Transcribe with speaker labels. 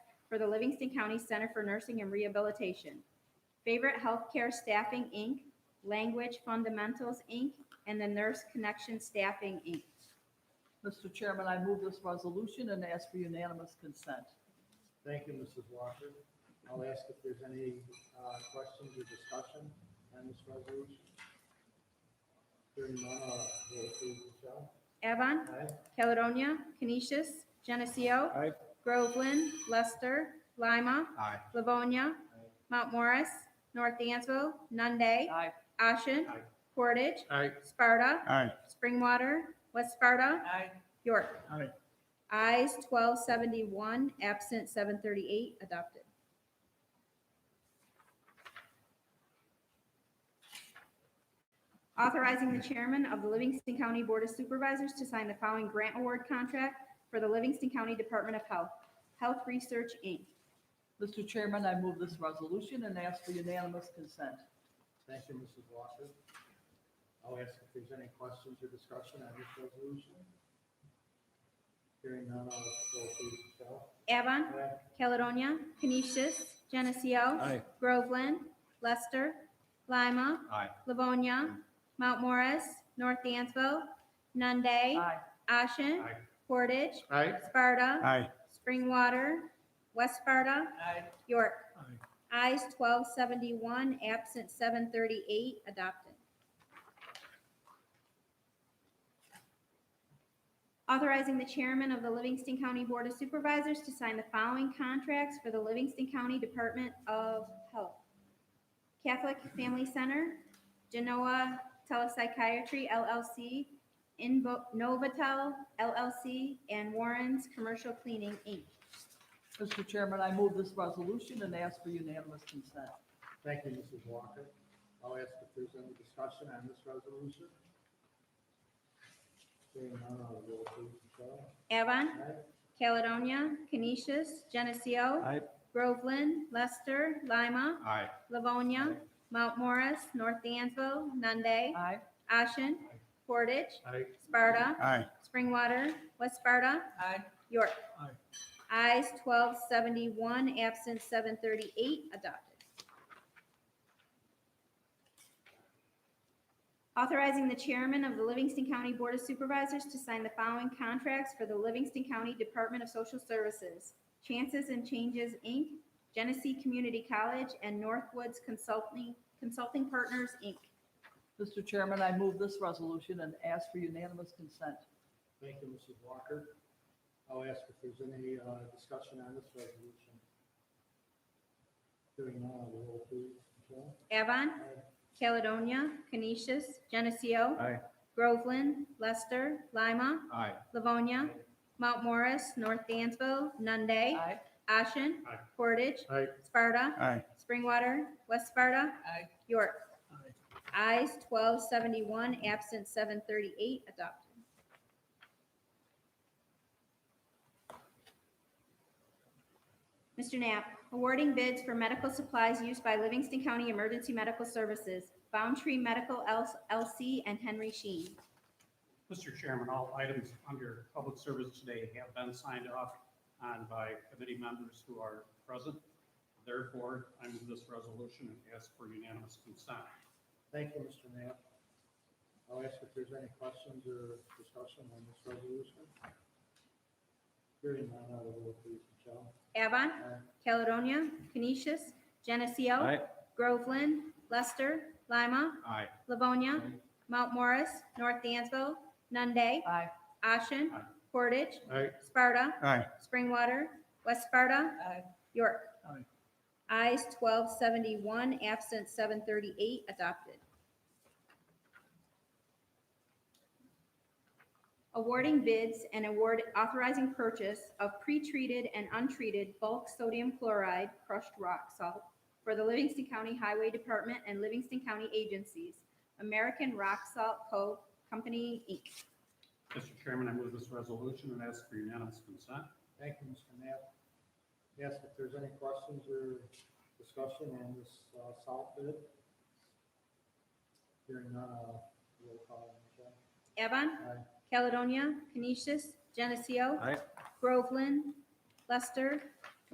Speaker 1: for the Livingston County Center for Nursing and Rehabilitation. Favorite Healthcare Staffing, Inc., Language Fundamentals, Inc., and the Nurse Connection Staffing, Inc.
Speaker 2: Mr. Chairman, I move this resolution and ask for unanimous consent.
Speaker 3: Thank you, Mrs. Walker. I'll ask if there's any uh, questions or discussion on this resolution. Hearing none, I'll roll please, Michelle.
Speaker 1: Avon,
Speaker 3: Aye.
Speaker 1: Caledonia, Canisius, Geneseo,
Speaker 4: Aye.
Speaker 1: Groveland, Lester, Lima,
Speaker 4: Aye.
Speaker 1: Livonia,
Speaker 3: Aye.
Speaker 1: Mount Morris, North Dansville, Nunde,
Speaker 2: Aye.
Speaker 1: Ashen,
Speaker 3: Aye.
Speaker 1: Portage,
Speaker 4: Aye.
Speaker 1: Sparta,
Speaker 4: Aye.
Speaker 1: Springwater, West Sparta,
Speaker 2: Aye.
Speaker 1: York.
Speaker 4: Aye.
Speaker 1: Ayes 1271, absent 738, adopted. Authorizing the chairman of the Livingston County Board of Supervisors to sign the following grant award contract for the Livingston County Department of Health, Health Research, Inc.
Speaker 2: Mr. Chairman, I move this resolution and ask for unanimous consent.
Speaker 3: Thank you, Mrs. Walker. I'll ask if there's any questions or discussion on this resolution. Hearing none, I'll roll please, Michelle.
Speaker 1: Avon,
Speaker 3: Aye.
Speaker 1: Caledonia, Canisius, Geneseo.
Speaker 4: Aye.
Speaker 1: Groveland, Lester, Lima,
Speaker 4: Aye.
Speaker 1: Livonia, Mount Morris, North Dansville, Nunde,
Speaker 2: Aye.
Speaker 1: Ashen,
Speaker 3: Aye.
Speaker 1: Portage,
Speaker 3: Aye.
Speaker 1: Sparta,
Speaker 4: Aye.
Speaker 1: Springwater, West Sparta,
Speaker 2: Aye.
Speaker 1: York.
Speaker 4: Aye.
Speaker 1: Eyes 1271, absent 738, adopted. Authorizing the chairman of the Livingston County Board of Supervisors to sign the following contracts for the Livingston County Department of Health. Catholic Family Center, Genoa Telepsychiatry LLC, Invo- Novatel LLC, and Warren's Commercial Cleaning, Inc.
Speaker 2: Mr. Chairman, I move this resolution and ask for unanimous consent.
Speaker 3: Thank you, Mrs. Walker. I'll ask if there's any discussion on this resolution. Hearing none, I'll roll please, Michelle.
Speaker 1: Avon,
Speaker 3: Aye.
Speaker 1: Caledonia, Canisius, Geneseo,
Speaker 4: Aye.
Speaker 1: Groveland, Lester, Lima,
Speaker 4: Aye.
Speaker 1: Livonia, Mount Morris, North Dansville, Nunde,
Speaker 2: Aye.
Speaker 1: Ashen, Portage,
Speaker 3: Aye.
Speaker 1: Sparta,
Speaker 4: Aye.
Speaker 1: Springwater, West Sparta,
Speaker 2: Aye.
Speaker 1: York.
Speaker 4: Aye.
Speaker 1: Eyes 1271, absent 738, adopted. Authorizing the chairman of the Livingston County Board of Supervisors to sign the following contracts for the Livingston County Department of Social Services. Chances and Changes, Inc., Genesee Community College, and Northwoods Consulting, Consulting Partners, Inc.
Speaker 2: Mr. Chairman, I move this resolution and ask for unanimous consent.
Speaker 3: Thank you, Mrs. Walker. I'll ask if there's any uh, discussion on this resolution. Hearing none, I'll roll please, Michelle.
Speaker 1: Avon,
Speaker 3: Aye.
Speaker 1: Caledonia, Canisius, Geneseo,
Speaker 4: Aye.
Speaker 1: Groveland, Lester, Lima,
Speaker 4: Aye.
Speaker 1: Livonia, Mount Morris, North Dansville, Nunde,
Speaker 2: Aye.
Speaker 1: Ashen,
Speaker 3: Aye.
Speaker 1: Portage,
Speaker 3: Aye.
Speaker 1: Sparta,
Speaker 4: Aye.
Speaker 1: Springwater, West Sparta,
Speaker 2: Aye.
Speaker 1: York.
Speaker 4: Aye.
Speaker 1: Eyes 1271, absent 738, adopted. Mr. Knapp, awarding bids for medical supplies used by Livingston County Emergency Medical Services, Boundtree Medical LC, and Henry Sheen.
Speaker 5: Mr. Chairman, all items under public service today have been signed off on by committee members who are present. Therefore, I move this resolution and ask for unanimous consent.
Speaker 3: Thank you, Mr. Knapp. I'll ask if there's any questions or discussion on this resolution. Hearing none, I'll roll please, Michelle.
Speaker 1: Avon,
Speaker 3: Aye.
Speaker 1: Caledonia, Canisius, Geneseo,
Speaker 4: Aye.
Speaker 1: Groveland, Lester, Lima,
Speaker 4: Aye.
Speaker 1: Livonia,
Speaker 4: Aye.
Speaker 1: Mount Morris, North Dansville, Nunde,
Speaker 2: Aye.
Speaker 1: Ashen,
Speaker 5: Aye.
Speaker 1: Portage,
Speaker 3: Aye.
Speaker 1: Sparta,
Speaker 4: Aye.
Speaker 1: Springwater, West Sparta,
Speaker 2: Aye.
Speaker 1: York.
Speaker 4: Aye.
Speaker 1: Eyes 1271, absent 738, adopted. Awarding bids and award authorizing purchase of pre-treated and untreated bulk sodium chloride crushed rock salt for the Livingston County Highway Department and Livingston County agencies, American Rock Salt Co. Company, Inc.
Speaker 5: Mr. Chairman, I move this resolution and ask for unanimous consent.
Speaker 3: Thank you, Mr. Knapp. Yes, if there's any questions or discussion on this uh, salt bid. Hearing none, I'll roll call, Michelle.
Speaker 1: Evan,
Speaker 3: Aye.
Speaker 1: Caledonia, Canisius, Geneseo,
Speaker 4: Aye.
Speaker 1: Groveland, Lester,